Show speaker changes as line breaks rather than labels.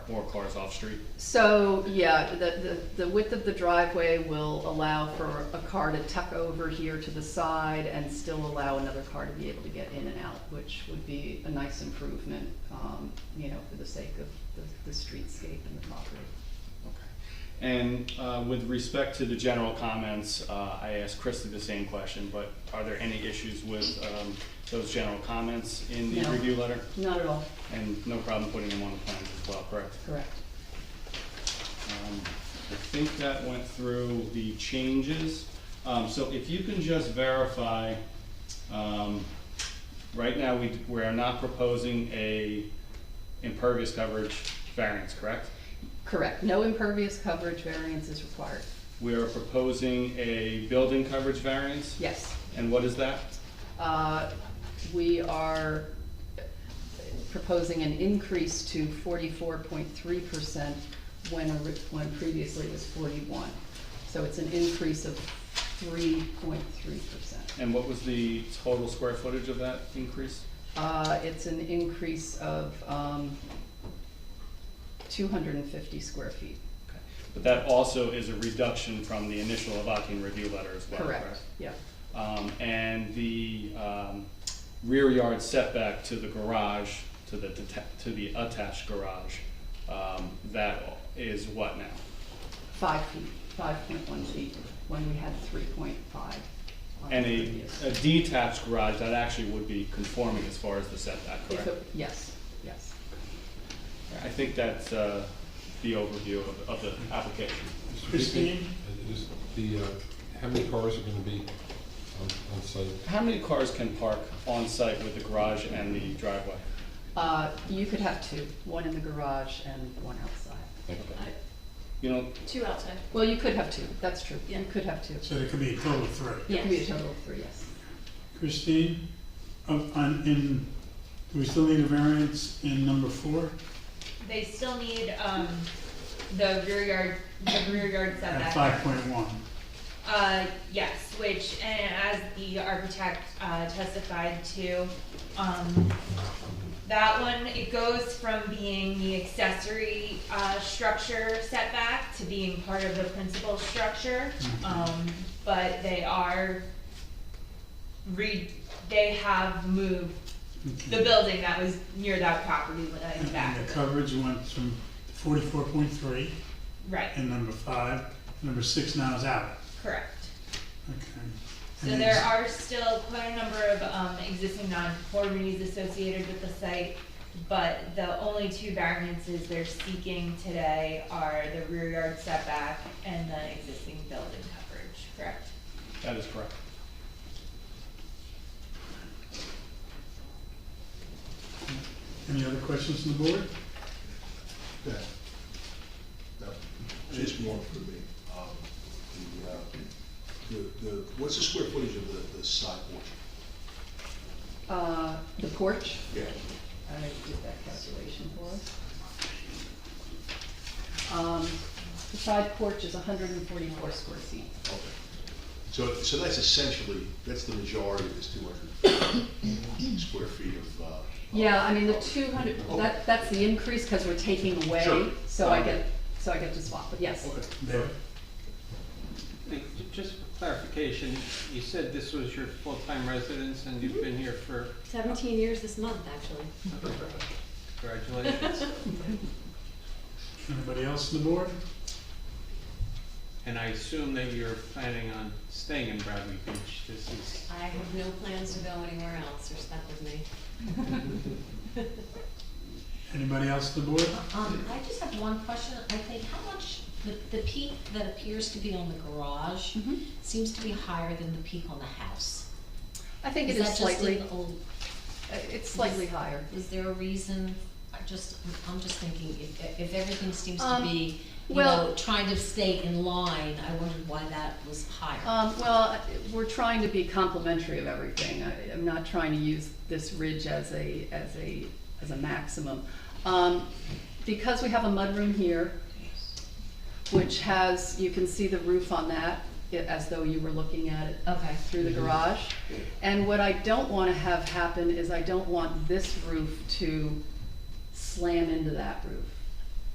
more cars off street.
So, yeah, the, the, the width of the driveway will allow for a car to tuck over here to the side and still allow another car to be able to get in and out, which would be a nice improvement, um, you know, for the sake of the, the streetscape and the property.
Okay. And uh, with respect to the general comments, uh, I asked Krista the same question, but are there any issues with um, those general comments in the
No.
review letter?
Not at all,
And no problem putting them on the plans as well, correct?
correct.
Um, I think that went through the changes. Um, So if you can just verify, um, right now, we, we are not proposing a impervious coverage variance, correct?
Correct, no impervious coverage variance is required,
We are proposing a building coverage variance?
yes.
And what is that?
Uh, We are proposing an increase to forty-four point three percent when, ori- when previously it was forty-one. So it's an increase of three point three percent.
And what was the total square footage of that increase?
Uh, It's an increase of um, two hundred and fifty square feet,
Okay. But that also is a reduction from the initial Avakian review letter as well, correct?
correct? Yeah,
Um, and the, um, rear yard setback to the garage, to the deta- to the attached garage, um, that is what now?
five feet, five point one feet, when we had three point five on the
And a,
previous.
a detached garage, that actually would be conforming as far as the setback,
If
correct?
it- Yes, yes.
I think that's, uh, the overview of, of the application.
Christine? Is the, uh, how many cars are gonna be on, on site?
How many cars can park on site with the garage and the driveway?
Uh, you could have two, one in the garage and one outside.
You know,
Two outside.
Well, you could have two, that's true, you
Yeah.
could have two.
So there could be a total of three.
It could be a total of three, yes.
Christine, of- on, in, do we still need a variance in number four?
They still need, um, the rear yard, the rear yard
At
setback.
five point one.
Uh, yes, which, and as the architect, uh, testified to, um, that one, it goes from being the accessory, uh, structure setback to being part of the principal structure.
Mm-hmm.
Um, but they are re, they have moved the building that was near that property line back.
And the coverage went from forty-four point three
Right,
in number five, number six now is out,
correct.
okay.
So
And
there
it's-
are still quite a number of, um, existing nonconformities associated with the site, but the only two variances they're seeking today are the rear yard setback and the existing building coverage, correct?
that is correct.
Any other questions from the board?
Yeah. No, Just more for me. Um, The, uh, the, the, what's the square footage of the, the side porch?
Uh, the porch,
Yeah.
I did that calculation for us. Um, the side porch is hundred and forty-four square feet.
Okay. So, so that's essentially, that's the majority of this two hundred square feet of, uh.
Yeah, I mean, the two hundred, that, that's the increase, cause we're taking away,
Sure. Um,
so I get, so I get to swap, but yes.
Okay.
There.
Nick, j- Just for clarification, you said this was your full-time residence and you've been here for,
17 years this month, actually.
congratulations,
Anybody else on the board?
and I assume that you're planning on staying in Bradley Beach, this is,
I have no plans to go anywhere else or step with me.
Anybody else on the board?
Um, I just have one question, I think, how much, the, the peak that appears to be on the garage
Mhm.
seems to be higher than the peak on the house.
I think it
that
is
just
slightly, uh,
an old-
it's slightly higher.
Is there a reason, I just, I'm just thinking, if, if everything seems to
Um,
be, you
well-
know, trying to stay in line, I wondered why that was higher.
Um, well, we're trying to be complimentary of everything. I, I'm not trying to use this ridge as a, as a, as a maximum. Um, because we have a mudroom here, which has, you can see the roof on that, i- as though you were looking at it
Okay.
through the garage. And what I don't wanna have happen is I don't want this roof to slam into that roof.